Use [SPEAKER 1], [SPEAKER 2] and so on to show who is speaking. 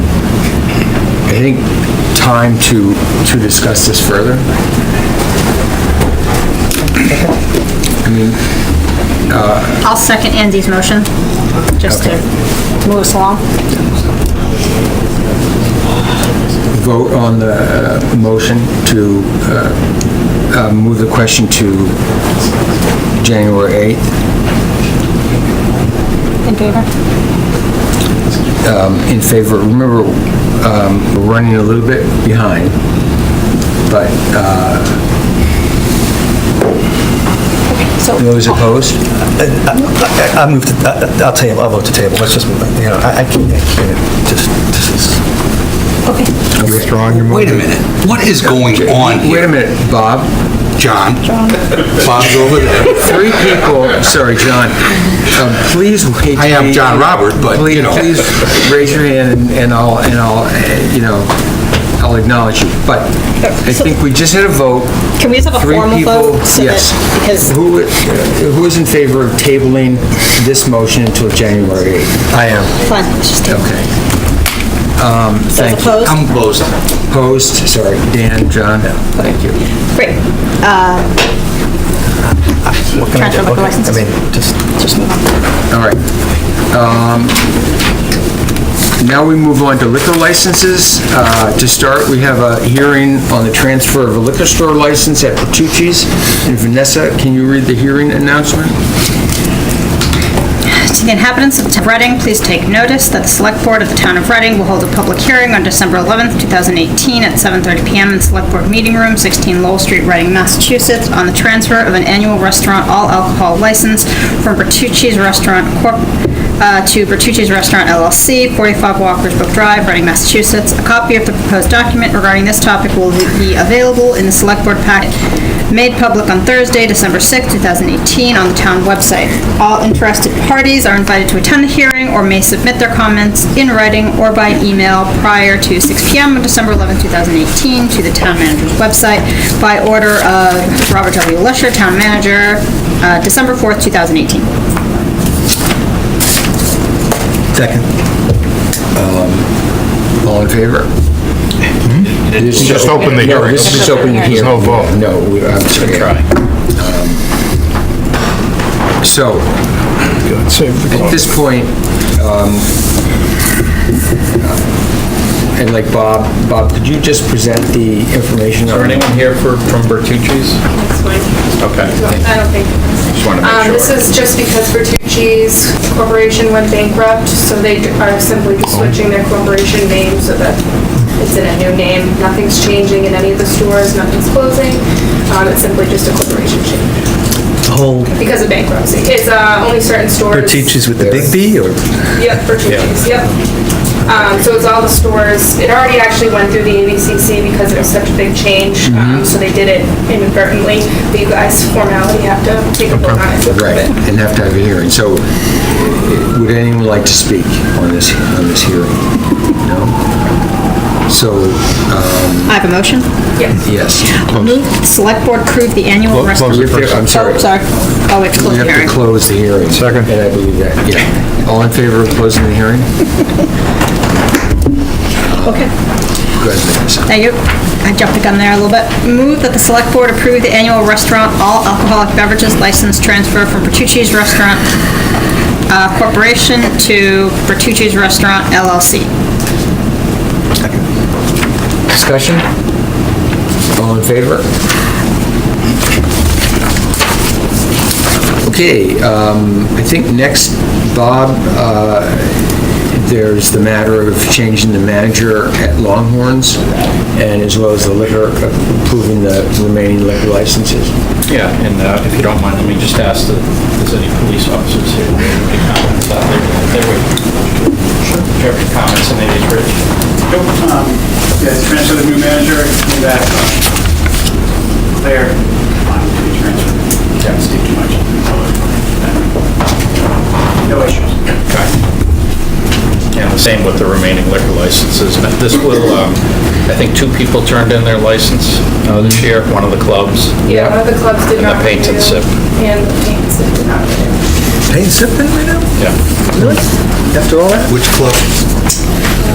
[SPEAKER 1] I think, time to, to discuss this further. I mean,
[SPEAKER 2] I'll second Andy's motion, just to move us along.
[SPEAKER 1] vote on the uh, motion to uh, uh, move the question to January 8th
[SPEAKER 2] In favor?
[SPEAKER 1] um, in favor, remember, um, we're running a little bit behind, but uh,
[SPEAKER 2] So,
[SPEAKER 1] those opposed?
[SPEAKER 3] I I move to, I- I'll table, I'll vote to table, let's just, you know, I I can't, I can't, just, this is,
[SPEAKER 2] okay,
[SPEAKER 4] Withdrawing your
[SPEAKER 5] Wait a
[SPEAKER 4] motion?
[SPEAKER 5] minute, what is going on
[SPEAKER 1] Wait a
[SPEAKER 5] here,
[SPEAKER 1] minute, Bob.
[SPEAKER 5] John? Bob's over there.
[SPEAKER 1] Three people, sorry, John, Um, please wait.
[SPEAKER 5] I am John Robert, but, you know.
[SPEAKER 1] Please please raise your hand and- and I'll, and I'll, eh, you know, I'll acknowledge you. But I think we just had a vote.
[SPEAKER 2] can we just have a
[SPEAKER 1] Three
[SPEAKER 2] formal
[SPEAKER 1] people,
[SPEAKER 2] vote? so that-
[SPEAKER 1] yes.
[SPEAKER 2] Because,
[SPEAKER 1] Who, eh, who is in favor of tabling this motion until January 8th?
[SPEAKER 3] I am.
[SPEAKER 2] fine, let's just table.
[SPEAKER 1] Okay. Um,
[SPEAKER 2] Those
[SPEAKER 1] Thank you.
[SPEAKER 2] opposed?
[SPEAKER 5] I'm closed.
[SPEAKER 1] Opposed, sorry, Dan, John, thank you.
[SPEAKER 2] Great,
[SPEAKER 3] What can I do?
[SPEAKER 2] Transfer liquor
[SPEAKER 3] Okay,
[SPEAKER 2] licenses.
[SPEAKER 3] I mean, just,
[SPEAKER 2] just move on.
[SPEAKER 1] All right. Um, Now we move on to liquor licenses. Uh, To start, we have a hearing on the transfer of a liquor store license at Petrucci's. And Vanessa, can you read the hearing announcement?
[SPEAKER 2] To the inhabitants of Reading, please take notice that the Select Board of the Town of Reading will hold a public hearing on December 11th, 2018, at 7:30 PM in Select Board Meeting Room, 16 Lowell Street, Reading, Massachusetts, on the transfer of an annual restaurant all alcohol license from Bertucci's Restaurant Corp. uh, to Bertucci's Restaurant LLC, 45 Walker's Brook Drive, Reading, Massachusetts. A copy of the proposed document regarding this topic will be available in the Select Board packet made public on Thursday, December 6, 2018, on the town website. All interested parties are invited to attend the hearing or may submit their comments in writing or by email prior to 6 PM on December 11, 2018, to the town manager's website by order of Robert W. Lusher, Town Manager, uh, December 4, 2018.
[SPEAKER 3] second.
[SPEAKER 1] Um, All in favor? This is
[SPEAKER 4] Hmm? Just open the
[SPEAKER 1] No,
[SPEAKER 4] hearing.
[SPEAKER 1] this is just open the
[SPEAKER 4] There's
[SPEAKER 1] hearing.
[SPEAKER 4] no vote.
[SPEAKER 1] No, we- I'm sorry. Um, So,
[SPEAKER 4] Save the
[SPEAKER 1] at
[SPEAKER 4] clock.
[SPEAKER 1] this point, um, I'd like Bob, Bob, could you just present the information?
[SPEAKER 6] Is there
[SPEAKER 1] on-
[SPEAKER 6] anyone here for, from Bertucci's?
[SPEAKER 7] That's fine.
[SPEAKER 6] Okay.
[SPEAKER 7] I don't think.
[SPEAKER 6] Just wanna make
[SPEAKER 7] Um,
[SPEAKER 6] sure.
[SPEAKER 7] This is just because Bertucci's Corporation went bankrupt, so they are simply
[SPEAKER 6] Oh.
[SPEAKER 7] just switching their corporation name so that it's in a new name. Nothing's changing in any of the stores, nothing's closing. Um, It's simply just a corporation change
[SPEAKER 3] The whole
[SPEAKER 7] because of bankruptcy. It's uh, only certain stores.
[SPEAKER 3] Bertucci's with the big B, or?
[SPEAKER 7] Yep, for two days, yep. Um, so it's all the stores, it already actually went through the ABCC because it was such a big change,
[SPEAKER 6] Mm-hmm.
[SPEAKER 7] um, so they did it inadvertently, but you guys formality have to take a vote on it to approve
[SPEAKER 1] Right,
[SPEAKER 7] it.
[SPEAKER 1] and have to have a hearing. So eh, would anyone like to speak on this, on this hearing? No? So,
[SPEAKER 2] I have a motion.
[SPEAKER 7] Yes,
[SPEAKER 1] yes,
[SPEAKER 2] Move the Select Board approve the annual restaurant...
[SPEAKER 4] close it first.
[SPEAKER 1] I'm sorry.
[SPEAKER 2] Oh, sorry. Oh, we have to
[SPEAKER 1] we
[SPEAKER 2] close the
[SPEAKER 1] have to
[SPEAKER 2] hearing.
[SPEAKER 1] close the hearing.
[SPEAKER 4] Second.
[SPEAKER 1] And I believe that, yeah. All in favor of closing the hearing?
[SPEAKER 2] Okay.
[SPEAKER 1] Go ahead, Vanessa.
[SPEAKER 2] Thank you. I jumped the gun there a little bit. Move that the Select Board approve the annual restaurant all alcoholic beverages license transfer from Bertucci's Restaurant uh, Corporation to Bertucci's Restaurant LLC.
[SPEAKER 1] Discussion? All in favor? Okay, um, I think next, Bob, uh, there's the matter of changing the manager at Longhorns, and as well as the liquor, approving the remaining liquor licenses.
[SPEAKER 6] Yeah, and uh, if you don't mind, let me just ask that if there's any police officers here who have any comments out there. They're waiting. Do you have any comments on any of these, Rich?
[SPEAKER 8] Nope, um, yeah, transfer the new manager, came back, uh, there, on to be transferred. Don't speak too much. No issues.
[SPEAKER 6] And the same with the remaining liquor licenses. And This will, um, I think two people turned in their license uh, this year, one of the clubs.
[SPEAKER 7] yeah, one of the clubs did
[SPEAKER 6] And the
[SPEAKER 7] not renew.
[SPEAKER 6] paint and sip.
[SPEAKER 7] And the paint and sip did not renew.
[SPEAKER 3] Paint sipping right now?
[SPEAKER 6] Yeah.
[SPEAKER 3] Really? After all that?
[SPEAKER 5] Which club?